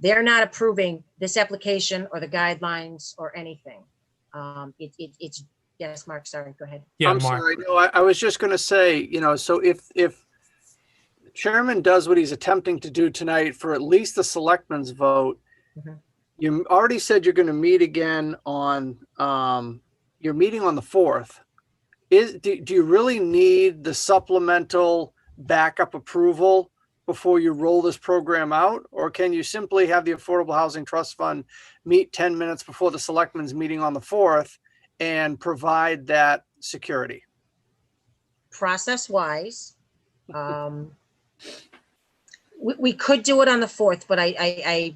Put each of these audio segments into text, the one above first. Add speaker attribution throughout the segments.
Speaker 1: They're not approving this application or the guidelines or anything. Um, it, it, it's, yes, Mark, sorry, go ahead.
Speaker 2: Yeah,
Speaker 3: I'm
Speaker 2: Mark.
Speaker 3: sorry. No, I, I was just going to say, you know, so if, if chairman does what he's attempting to do tonight for at least the selectmen's vote,
Speaker 1: Mhm.
Speaker 3: you already said you're going to meet again on, um, you're meeting on the 4th. Is, do, do you really need the supplemental backup approval before you roll this program out? Or can you simply have the Affordable Housing Trust Fund meet 10 minutes before the selectmen's meeting on the 4th and provide that security.
Speaker 1: process wise. Um, we, we could do it on the fourth, but I, I, I,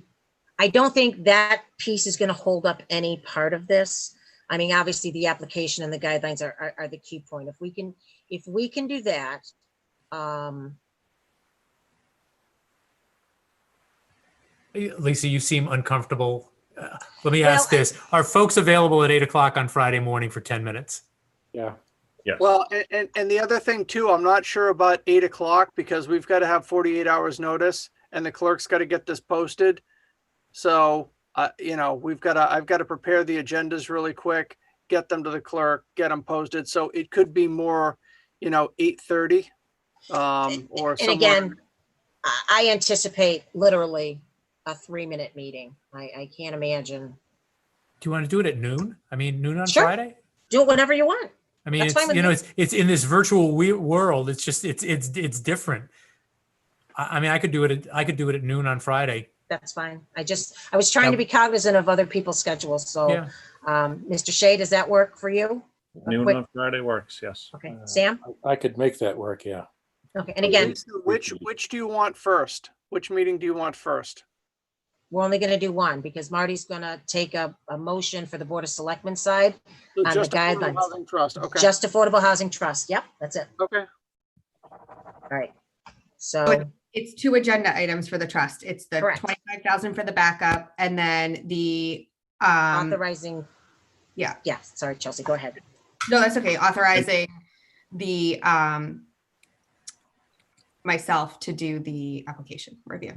Speaker 1: I don't think that piece is gonna hold up any part of this. I mean, obviously, the application and the guidelines are, are, are the key point. If we can, if we can do that, um,
Speaker 2: Lisa, you seem uncomfortable. Uh, Let me
Speaker 1: Well,
Speaker 2: ask this. Are folks available at eight o'clock on Friday morning for 10 minutes?
Speaker 4: Yeah.
Speaker 3: Well, a- and, and the other thing too, I'm not sure about eight o'clock because we've got to have 48 hours notice and the clerk's got to get this posted. So, uh, you know, we've got to, I've got to prepare the agendas really quick, get them to the clerk, get them posted. So it could be more, you know, 8:30. Um, or
Speaker 1: and
Speaker 3: somewhere.
Speaker 1: again, I, I anticipate literally a three-minute meeting. I, I can't imagine.
Speaker 2: Do you want to do it at noon? I mean, noon on
Speaker 1: Sure.
Speaker 2: Friday?
Speaker 1: Do it whenever you want.
Speaker 2: I mean,
Speaker 1: That's fine
Speaker 2: it's,
Speaker 1: with
Speaker 2: you know,
Speaker 1: me.
Speaker 2: it's, it's in this virtual we- world. It's just, it's, it's, it's different. I, I mean, I could do it, at I could do it at noon on Friday.
Speaker 1: That's fine. I just, I was trying to
Speaker 2: That-
Speaker 1: be cognizant of other people's schedules, so.
Speaker 2: Yeah.
Speaker 1: Um, Mr. Shea, does that work for you?
Speaker 4: Noon
Speaker 1: Wait.
Speaker 4: on Friday works, yes.
Speaker 1: Okay,
Speaker 4: Uh,
Speaker 1: Sam?
Speaker 4: I could make that work, yeah.
Speaker 1: Okay, and again,
Speaker 3: So Which, which do you want first? Which meeting do you want first?
Speaker 1: we're only gonna do one because Marty's gonna take a, a motion for the Board of Selectmen side,
Speaker 3: So
Speaker 1: On Um, the
Speaker 3: just Affordable
Speaker 1: guidelines.
Speaker 3: Housing Trust, okay,
Speaker 1: just Affordable Housing Trust. Yep, that's it.
Speaker 3: okay.
Speaker 1: All right. So,
Speaker 5: It's two agenda items for the trust. It's the
Speaker 1: Correct.
Speaker 5: twenty-five thousand for the backup and then the, um,
Speaker 1: authorizing.
Speaker 5: yeah.
Speaker 1: Yeah, sorry, Chelsea, go ahead.
Speaker 5: no, that's okay, authorizing the, um, myself to do the application review.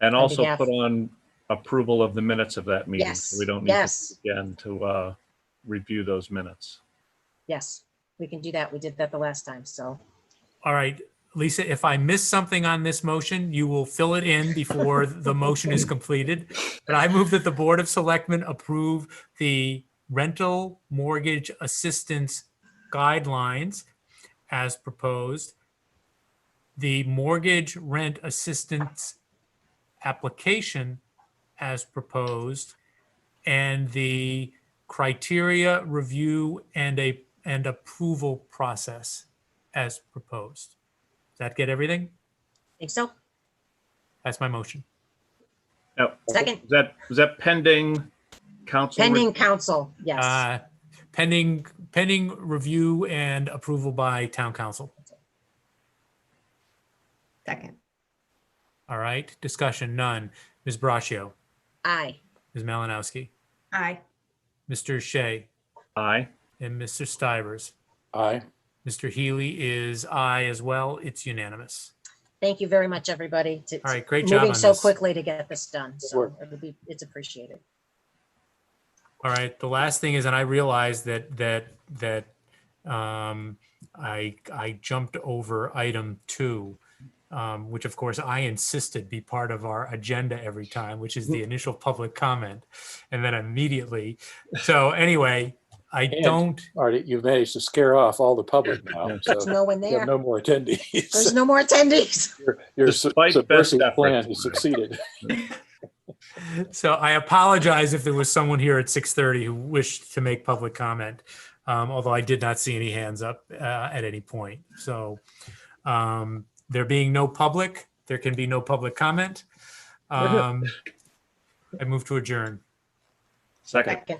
Speaker 4: And
Speaker 1: on
Speaker 4: also
Speaker 1: behalf-
Speaker 4: put on approval of the minutes of that meeting.
Speaker 1: Yes,
Speaker 4: so We don't need to
Speaker 1: yes,
Speaker 4: again to uh, review those minutes.
Speaker 1: yes. We can do that. We did that the last time, so.
Speaker 2: All right, Lisa, if I miss something on this motion, you will fill it in before the motion is completed. But I move that the Board of Selectmen approve the rental mortgage assistance guidelines as proposed. The mortgage rent assistance application as proposed. And the criteria review and a, and approval process as proposed. Does that get everything?
Speaker 1: Think so?
Speaker 2: That's my motion.
Speaker 4: Now,
Speaker 1: Second,
Speaker 4: Is that, is that pending council? re-
Speaker 1: pending council, yes.
Speaker 2: Uh, Pending, pending review and approval by town council.
Speaker 5: Second,
Speaker 2: All right, discussion, none. Ms. Braccio,
Speaker 1: Aye.
Speaker 2: Ms. Malinowski,
Speaker 5: aye.
Speaker 2: Mr. Shea,
Speaker 4: Aye.
Speaker 2: and Mr. Stivers.
Speaker 4: Aye.
Speaker 2: Mr. Healy is aye as well. It's unanimous.
Speaker 1: Thank you very much, everybody. to-
Speaker 2: All right, great job on
Speaker 1: Moving so
Speaker 2: this.
Speaker 1: quickly to get this done, so
Speaker 4: work.
Speaker 1: it'll be, it's appreciated.
Speaker 2: All right. The last thing is, and I realized that, that, that um, I, I jumped over item two, um, which of course I insisted be part of our agenda every time, which is the initial public comment. And then immediately, so anyway, I
Speaker 6: And-
Speaker 2: don't,
Speaker 6: All right, you've managed to scare off all the public now,
Speaker 1: There's
Speaker 6: so
Speaker 1: no one
Speaker 6: you
Speaker 1: there.
Speaker 6: have no more
Speaker 1: There's
Speaker 6: attendees.
Speaker 1: no more attendees.
Speaker 6: Your- Your su-
Speaker 4: Despite best
Speaker 6: subversive plan
Speaker 4: efforts.
Speaker 6: has succeeded.
Speaker 2: so I apologize if there was someone here at 6:30 who wished to make public comment, um, although I did not see any hands up uh, at any point. So um, there being no public, there can be no public comment. Um, I move to adjourn.
Speaker 4: Second.
Speaker 1: Second.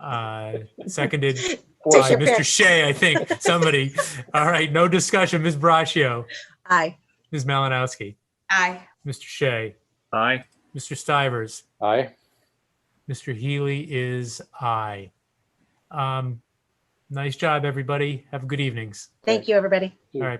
Speaker 2: Uh, Seconded
Speaker 1: Take
Speaker 2: by
Speaker 1: your
Speaker 2: Mr.
Speaker 1: pick.
Speaker 2: Shea, I think, somebody. All right, no discussion. Ms. Braccio,
Speaker 1: Aye.
Speaker 2: Ms. Malinowski,
Speaker 5: Aye.
Speaker 2: Mr. Shea,
Speaker 4: Aye.
Speaker 2: Mr. Stivers.
Speaker 6: Aye.
Speaker 2: Mr. Healy is aye. Um, nice job, everybody. Have good evenings.
Speaker 1: Thank you, everybody.
Speaker 2: All right.